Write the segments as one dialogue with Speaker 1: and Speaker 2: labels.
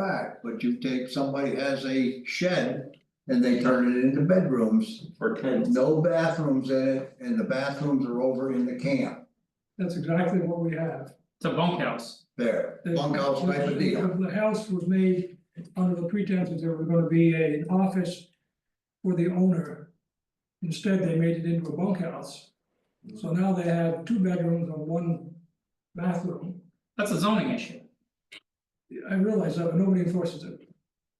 Speaker 1: fact, but you take, somebody has a shed and they turn it into bedrooms.
Speaker 2: or ten,
Speaker 1: No bathrooms in it, and the bathrooms are over in the camp
Speaker 3: That's exactly what we have.
Speaker 4: It's a bunkhouse.
Speaker 1: there,
Speaker 3: The-
Speaker 1: bunkhouse type of deal.
Speaker 3: The house was made under the pretense that there was gonna be a- an office for the owner. Instead, they made it into a bunkhouse. So now they have two bedrooms and one bathroom.
Speaker 4: That's a zoning issue.
Speaker 3: I realize that, but nobody enforces it.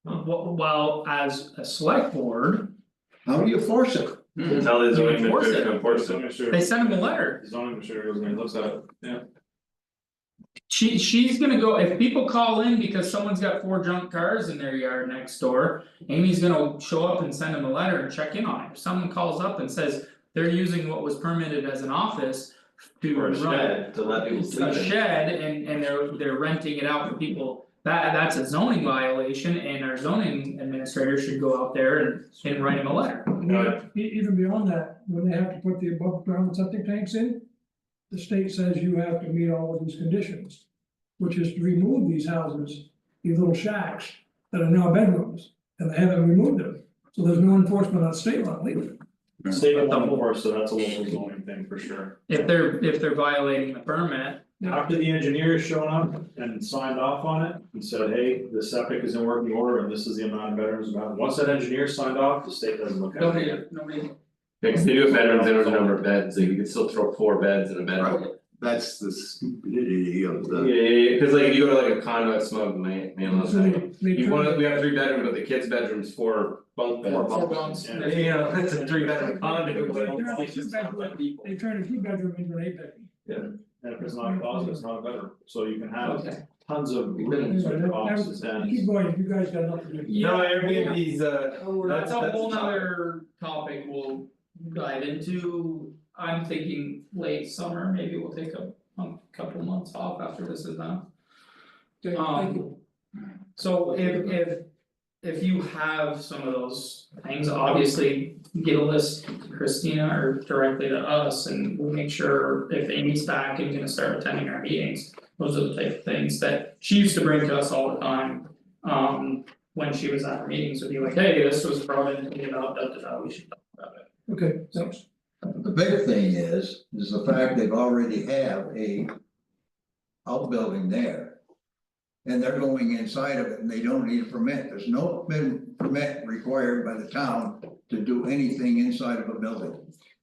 Speaker 4: Well, well, as a select board,
Speaker 1: How do you force it?
Speaker 5: Hmm.
Speaker 2: that's
Speaker 4: they
Speaker 2: how they
Speaker 4: You
Speaker 2: zoning
Speaker 4: enforce
Speaker 2: administrator
Speaker 4: it.
Speaker 2: can enforce it.
Speaker 4: send him a letter.
Speaker 2: Zoning administrator goes and he looks at it, yeah.
Speaker 4: She she's gonna go, if people call in because someone's got four junk cars in their yard next door. Amy's gonna show up and send him a letter and check in on it. If someone calls up and says they're using what was permitted as an office. To
Speaker 2: Or a
Speaker 4: run
Speaker 2: shed to let people
Speaker 4: It's
Speaker 2: sleep
Speaker 4: a
Speaker 2: in.
Speaker 4: shed and and they're they're renting it out for people, that that's a zoning violation and our zoning administrator should go out there and and write him a letter.
Speaker 2: No.
Speaker 3: E- even beyond that, when they have to put the above ground septic tanks in. The state says you have to meet all of these conditions, which is to remove these houses, these little shacks that are now bedrooms, and they haven't removed them. So there's no enforcement on state law legally.
Speaker 2: State won't enforce, so that's a local zoning thing for sure.
Speaker 4: If they're if they're violating the permit,
Speaker 2: After the engineer has shown up and signed off on it and said, hey, the septic is in working order and this is the amount of bedrooms about, once that engineer signed off, the state doesn't look at
Speaker 4: nobody
Speaker 2: it.
Speaker 4: nobody.
Speaker 5: Yeah, cause they do have bedrooms, they don't have a number of beds, like you could still throw four beds in a bedroom.
Speaker 6: That's the stupidity of
Speaker 5: Yeah,
Speaker 6: the,
Speaker 5: yeah, yeah, cause like if you go to like a condo at Smug, man, man,
Speaker 3: So they- they
Speaker 5: you
Speaker 3: turn-
Speaker 5: wanna, we have three bedrooms, but the kids' bedrooms, four bunk beds.
Speaker 4: Four bunks.
Speaker 2: Yeah.
Speaker 5: Yeah, You know, it's a three bedroom condo, but
Speaker 3: They're not just bedroom. They turn a two bedroom into an eight bedroom.
Speaker 2: And if it's not a closet, it's not a bedroom, so you can have
Speaker 4: Okay.
Speaker 2: tons of rooms
Speaker 3: Yeah,
Speaker 2: with
Speaker 3: that-
Speaker 2: offices
Speaker 3: Keep
Speaker 2: and.
Speaker 3: going, you guys got nothing to do.
Speaker 5: No, Airbnb's uh, that's
Speaker 4: That's a whole
Speaker 5: that's-
Speaker 4: nother topic we'll dive into, I'm thinking late summer, maybe we'll take a a couple months off after this is done.
Speaker 3: Okay, thank you.
Speaker 4: Um. So if if if you have some of those things, obviously get a list to Christina or directly to us and we'll make sure if Amy's back and gonna start attending our meetings. Those are the type of things that she used to bring to us all the time. Um when she was at our meetings, would be like, hey, this was brought in, you know, da da da, we should talk about it.
Speaker 3: Okay, thanks.
Speaker 1: The big thing is, is the fact they've already have a. Outbuilding there. And they're going inside of it and they don't need a permit, there's no been permit required by the town to do anything inside of a building.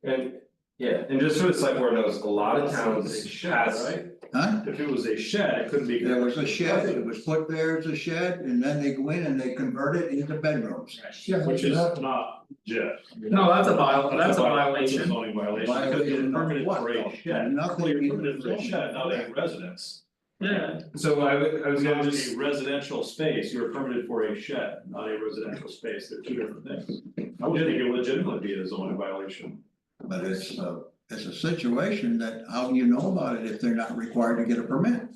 Speaker 5: and, yeah, and just so the select board knows, a lot of towns has,
Speaker 2: Right,
Speaker 1: Huh?
Speaker 2: if it was a shed, it couldn't be.
Speaker 1: There was a shed, it was put there as a shed, and then they go in and they convert it into bedrooms.
Speaker 2: Which is not legit.
Speaker 4: No, that's a viol,
Speaker 2: That's
Speaker 4: that's a
Speaker 2: vi- That's a
Speaker 4: violation,
Speaker 2: zoning violation, because
Speaker 1: Violation
Speaker 2: it's
Speaker 1: of
Speaker 2: permitted
Speaker 1: what,
Speaker 2: for
Speaker 1: though?
Speaker 2: a shed,
Speaker 1: Nothing
Speaker 2: clearly
Speaker 1: in the
Speaker 2: permitted for a
Speaker 1: zoning.
Speaker 2: shed, not a residence.
Speaker 4: yeah,
Speaker 5: so I would, I was
Speaker 2: It's
Speaker 5: gonna
Speaker 2: not
Speaker 5: just.
Speaker 2: a residential space, you're permitted for a shed, not a residential space, they're two different things. I would think it would legitimately be a zoning violation.
Speaker 1: But it's a, it's a situation that, how do you know about it if they're not required to get a permit?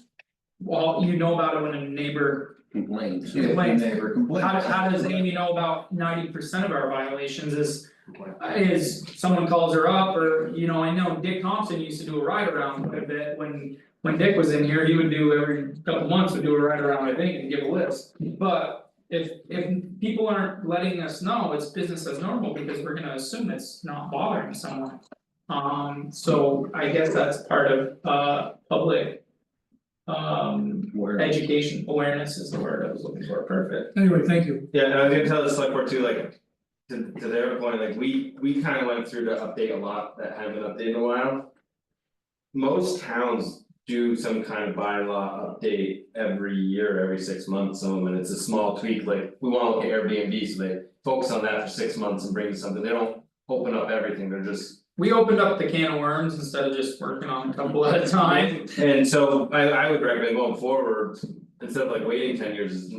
Speaker 4: well, you know about it when a neighbor
Speaker 6: complaints.
Speaker 1: If the neighbor complains.
Speaker 4: How how does Amy know about ninety percent of our violations is
Speaker 2: Complaint.
Speaker 4: is someone calls her up or, you know, I know Dick Thompson used to do a ride around quite a bit when. When Dick was in here, he would do every couple months, would do a ride around, I think, and give a list, but. If if people aren't letting us know, it's business as normal because we're gonna assume it's not bothering someone. Um so I guess that's part of uh public. Um education awareness is the word I was looking for, perfect.
Speaker 3: Anyway, thank you.
Speaker 5: Yeah, and I was gonna tell the select board too, like, to to their point, like, we we kinda went through to update a lot that haven't been updated in a while. Most towns do some kind of bylaw update every year, every six months, some of them, and it's a small tweak, like, we wanna look at Airbnb, so they focus on that for six months and bring something, they don't open up everything, they're just
Speaker 4: We opened up the can of worms instead of just working on a couple at a time.
Speaker 5: And so I I would recommend going forward, instead of like waiting ten years, is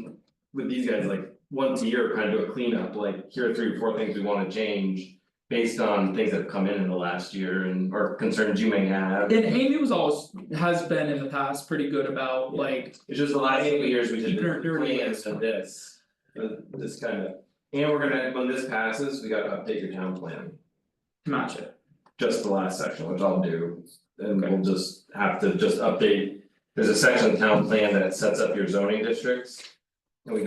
Speaker 5: with these guys, like once a year, kind of do a cleanup, like here are three or four things we wanna change. Based on things that have come in in the last year and or concerns you may have,
Speaker 4: And Amy was always, has been in the past pretty good about like,
Speaker 5: it's just the last couple of years we did
Speaker 4: Keep your dirty
Speaker 5: the plans
Speaker 4: ways.
Speaker 5: of this. uh, This kind of, and we're gonna, when this passes, we gotta update your town plan,
Speaker 4: match it.
Speaker 5: just the last section, which I'll do. And
Speaker 4: Okay.
Speaker 5: we'll just have to just update, there's a section of the town plan that sets up your zoning districts.